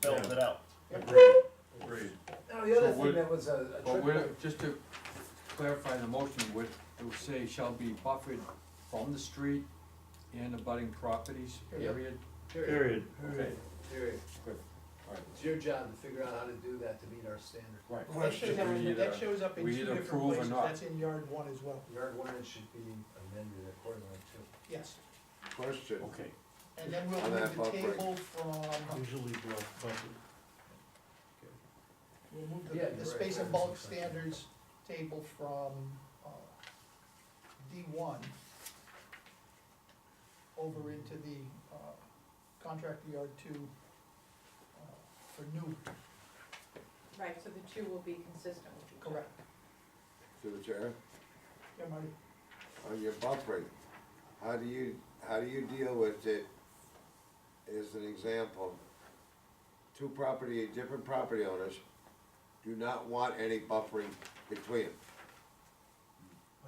fills it out. Agreed, agreed. Now, the other So thing we're- that was a, a But trick, we're, que- just to clarify the motion, would, it would say shall be buffered from the street and abutting properties, Yeah. period? period, Period. Okay, period. good, alright, It's your job to figure out how to do that to meet our standard. right. That shows up, We in- either- that shows up in we two either different approve or places, not. that's in yard one as well, Your ordinance should be amended accordingly too. yes. Question, Okay, And then we'll On move that the buffer. table from, Usually block buffer. we'll move Yeah, the, you're the right, space there and is bulk something. standards table from, uh, D one over into the, uh, contract yard two, uh, for new, Right, so the two will be consistent with each other. correct, to the chair, yeah, Marty? on your buffering, how do you, how do you deal with it? As an example, two property, different property owners do not want any buffering between them.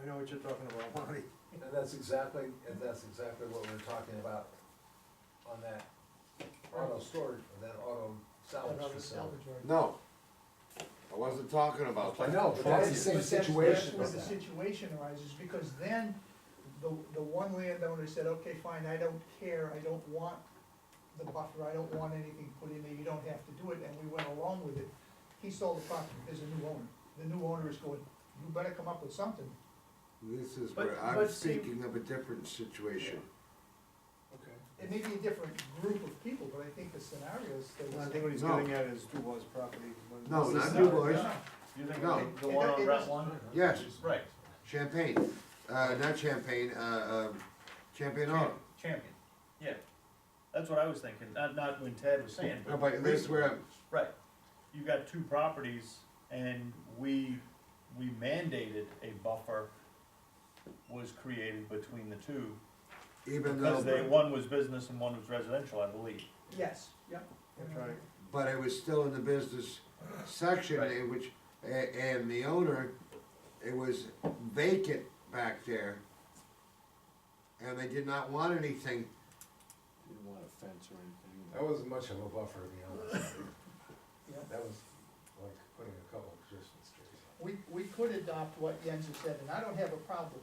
I know what you're talking about, Marty. And that's exactly, and that's exactly what we we're talking about on that auto storage, or that auto That salvage other facility. salvage yard. No, I wasn't talking about I that. know, but that's the same But that's- situation with That's where the that. situation arises, because then the, the one landowner said, okay, fine, I don't care, I don't want the buffer, I don't want anything put in there, you don't have to do it, and we went along with it. He sold the property, there's a new owner, the new owner is going, you better come up with something. This is But- where I'm but see- speaking of a different situation. Okay. It may be a different group of people, but I think the scenarios that Well, I was. think what he's No. getting at is Dubois property. when No, this not is- Dubois. Boys? No, You think No. the- the It- one it on Route doesn't- One? Yes, Right, Champagne, uh, not Champagne, uh, um, Champagne Auto. champ- champion, yeah. That's what I was thinking, not, not when Ted was saying, No, but. but this is where I'm, Right, you've got two properties and we, we mandated a buffer was created between the two. even though. Because they, one was business and one was residential, I believe. Yes, yep. That's right. but it was still in the business section, Right. in which, a- and the owner, it was vacant back there. And they did not want anything, Didn't want a fence or anything. That wasn't much of a buffer, to be honest. Yeah. That was like putting a couple of Christmas trees. We, we could adopt what Jens has said, and I don't have a problem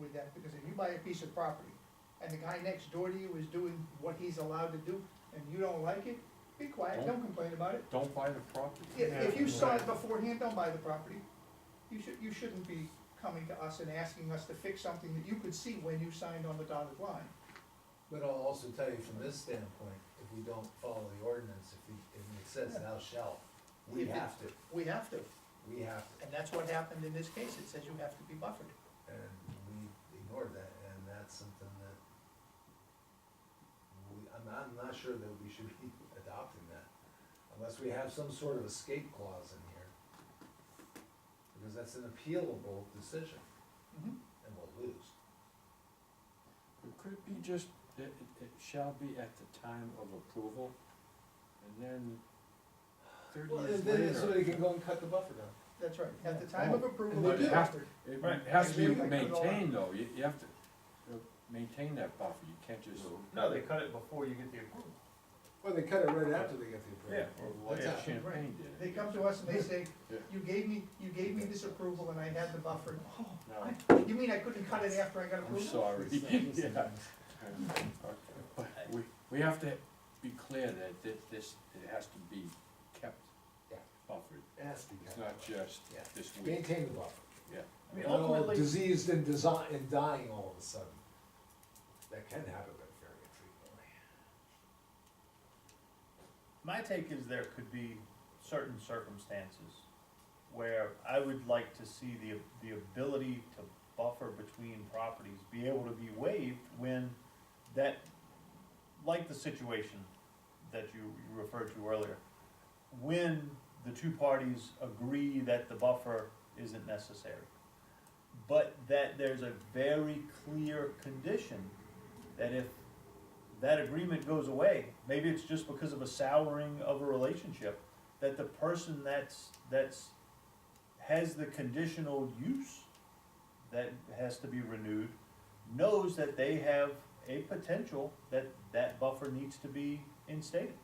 with that, because if you buy a piece of property, and the guy next door to you is doing what he's allowed to do, and you don't like it, be quiet, don't complain about it. Uh, don't buy the property. If, if you saw it beforehand, don't buy the property. You should, you shouldn't be coming to us and asking us to fix something that you could see when you signed on the dotted line. But I'll also tell you from this standpoint, if we don't follow the ordinance, if we, if it says thou shalt, we If it- have to, We have to, we have to. and that's what happened in this case, it says you have to be buffered. And we ignored that, and that's something that we, I'm, I'm not sure that we should be adopting that, unless we have some sort of escape clause in here. Because that's an appealable decision, Mhm. and we'll lose. Could it be just, it, it, it shall be at the time of approval, and then thirty years later. can go and cut the buffer down. That's right, at the time of approval, they you're do. buffered. It Right. has to be Maybe I could go maintained though, you, you have to uh, maintain that buffer, you can't just. No, they cut it before you get the approval. Well, they cut it right after they get the Yeah. Like Yeah. Champagne did. They come to us and they say, Yeah. you gave me, you gave me this approval and I had the buffer. Oh, No, I- You mean I couldn't cut it after I got I'm approval? sorry. Yeah. But we, we have to be clear that thi- this, it has to be kept Yeah. buffered, It has to be it's not just Yeah. this week, Maintain the buffer. yeah. I mean, Not all ultimately, diseased and design, and dying all of a sudden. That can happen, but very infrequently. my take is there could be certain circumstances where I would like to see the, the ability to buffer between properties be able to be waived when that, like the situation that you you referred to earlier, when the two parties agree that the buffer isn't necessary, but that there's a very clear condition that if that agreement goes away, maybe it's just because of a souring of a relationship, that the person that's, that's, has the conditional use that has to be renewed, knows that they have a potential that that buffer needs to be instated.